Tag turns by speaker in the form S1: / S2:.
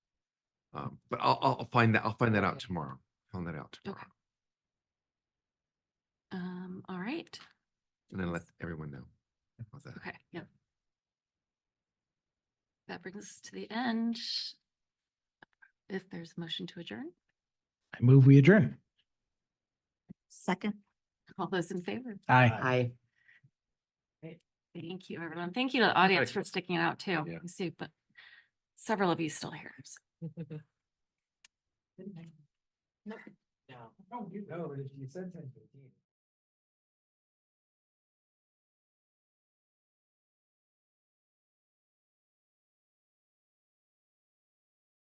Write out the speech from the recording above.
S1: Um, but I'll, I'll I'll find that, I'll find that out
S2: Okay.
S1: tomorrow. Find that out tomorrow
S2: Okay. Um, all right.
S1: and then let everyone know. about that.
S2: Okay, yep. That brings us to the end. If there's a motion to adjourn,
S3: I move we adjourn.
S4: Second.
S2: all those in favor,
S3: Aye.
S4: Aye.
S2: thank you, everyone. Thank you to the audience
S1: Alright.
S2: for sticking it out too.
S1: Yeah.
S2: I see, but several of you still here. so.
S5: No, no, you know, but if you said ten fifteen.